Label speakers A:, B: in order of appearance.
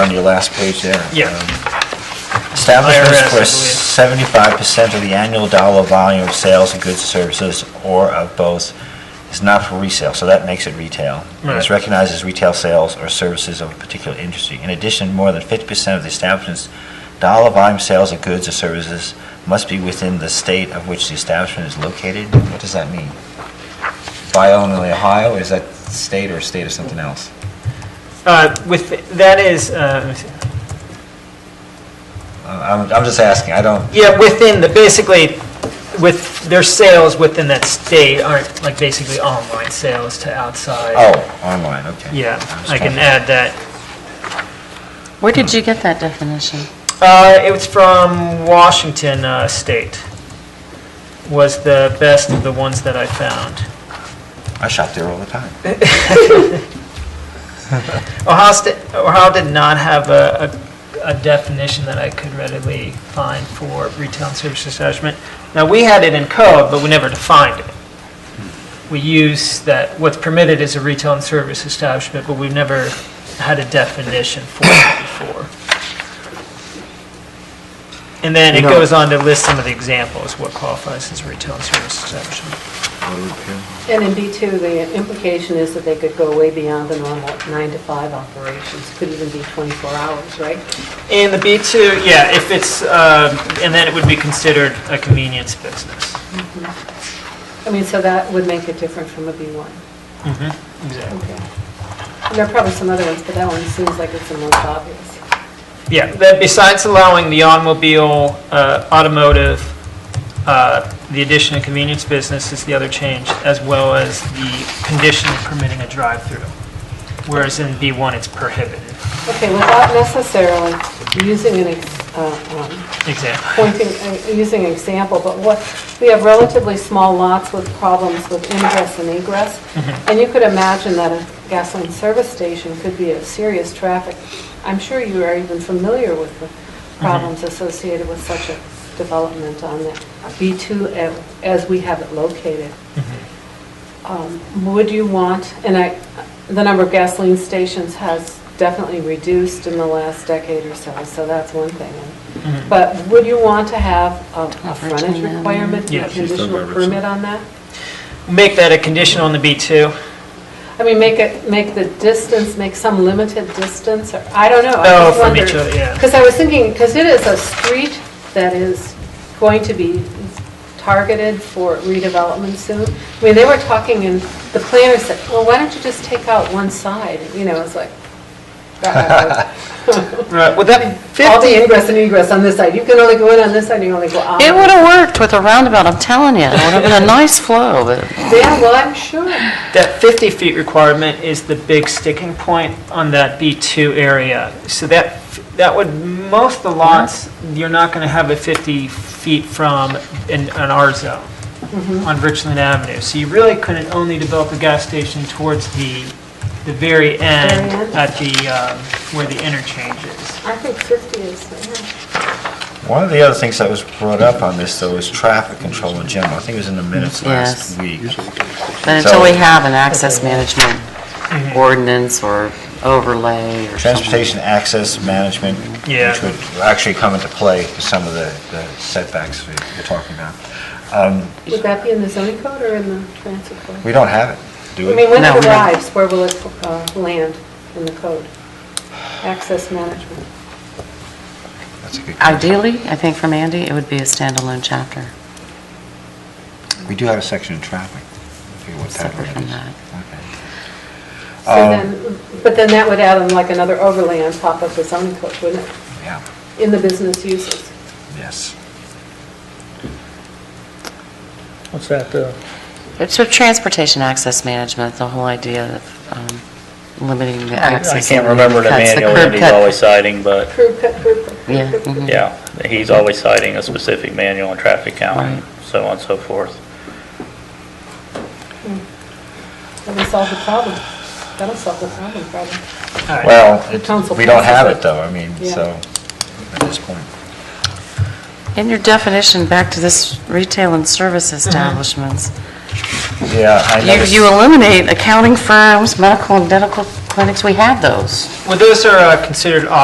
A: on your last page there.
B: Yeah.
A: Um, Establishments
B: IRS, I
A: where
B: believe.
A: seventy-five percent of the annual dollar volume of sales of goods, services, or of both is not for resale, so that makes it retail. and It's
B: Right.
A: recognized as retail sales or services of a particular industry. In addition, more than fifty percent of the establishment's dollar volume sales of goods or services must be within the state of which the establishment is located. What does that mean? By only Ohio, is that state or state of something else?
B: Uh, With, that is, uh,
A: Uh, I'm, I'm just asking, I don't,
B: yeah, within the, basically, with, their sales within that state aren't like basically online sales to outside.
A: oh, online, okay.
B: Yeah,
A: I'm just
B: I can
A: talking-
B: add that.
C: Where did you get that definition?
B: Uh, it was from Washington uh, State. Was the best of the ones that I found.
A: I shop there all the time.
B: Ohio State, Ohio did not have a, a, a definition that I could readily find for retail and service establishment. Now, we had it in code, but we never defined it. We use that, what's permitted is a retail and service establishment, but we've never had a definition for it before. And then it
D: You know-
B: goes on to list some of the examples, what qualifies as a retail and service establishment.
E: And in B2, the implication is that they could go way beyond the normal nine to five operations, could even be 24 hours, right?
B: In the B2, yeah, if it's, um, and then it would be considered a convenience business.
E: I mean, so that would make it different from a B1.
B: Exactly.
E: And There are probably some other ones, but that one seems like it's the most obvious.
B: Yeah, that besides allowing the automobile, uh, automotive, uh, the addition of convenience business is the other change, as well as the condition of permitting a drive-through. Whereas in B1, it's prohibited.
E: Okay, without necessarily using an, ex- uh, um,
B: Exactly.
E: pointing, uh, using an example, but what, we have relatively small lots with problems with ingress and egress, and you could imagine that a gasoline service station could be a serious traffic. I'm sure you are even familiar with the problems associated with such a development on the B2 a- as we have it located.
B: Mm-hmm.
E: Um, Would you want, and I, the number of gasoline stations has definitely reduced in the last decade or so, so that's one thing.
B: Mm-hmm.
E: But would you want to have a a frontage
C: Virginia.
E: requirement,
B: Yeah.
E: a conditional permit on that?
B: Make that a condition on the B2.
E: I mean, make it, make the distance, make some limited distance, or, I don't know. I
B: Oh,
E: just
B: from each
E: wondered.
B: other, yeah.
E: Because I was thinking, because it is a street that is going to be targeted for redevelopment soon. I mean, they were talking, and the planner said, well, why don't you just take out one side? You know, it's like,
B: Right, would that
E: all the
B: 50?
E: ingress and egress on this side, you can only go in on this side, you can only go out.
C: It would have worked with a roundabout, I'm telling you. It would have been a nice flow, but
E: Yeah, well, I'm sure.
B: That 50 feet requirement is the big sticking point on that B2 area. So that, that would, most of the lots, you're not going to have a 50 feet from an an R zone
E: Mm-hmm.
B: on Richland Avenue. So you really couldn't only develop a gas station towards the, the very end
E: Very end.
B: at the, um, where the interchange is.
E: I think 50 is, yeah.
A: One of the other things that was brought up on this, though, is traffic control in general. I think it was in the minutes last
C: Yes.
A: week.
C: but until we have an access management Mm-hmm. ordinance or overlay or something.
A: Transportation access management,
B: Yeah.
A: which would actually come into play for some of the the setbacks we- you're talking about. Um,
E: Would that be in the zoning code or in the transit code?
A: We don't have it, do
E: I
A: we?
E: mean, when
C: No,
E: it
C: we don't.
E: arrives, where will it uh, land in the code? Access management.
A: That's a good
C: Ideally, I think from Andy, it would be a standalone chapter.
A: We do have a section in traffic. I forget what title
C: Separate
A: it
C: from
A: is.
C: that.
A: Okay.
E: So
A: Um,
E: then, but then that would add in like another overlay on top of the zoning code, wouldn't it?
A: Yeah,
E: In the business uses.
A: yes.
B: What's that,
C: It's with transportation access management, the whole idea of um, limiting the access.
F: I can't
C: and
F: remember the
C: cuts,
F: manual
C: curb
F: that he's
C: cut.
F: always citing, but,
E: Curb cut, curb cut.
C: Yeah,
E: curb cut.
C: mhm.
F: yeah, he's always citing a specific manual on traffic count, and so on and so forth.
E: That'll solve the problem. That'll solve the problem, probably.
A: Well, it-
E: Council
A: we don't have
E: passes
A: it,
E: it.
A: though, I mean,
E: Yeah.
A: so, at this point.
C: In your definition, back to this retail and service establishments,
A: Yeah, I
C: you
A: noticed.
C: you eliminate accounting firms, medical and dental clinics, we have those.
B: Well, those are uh, considered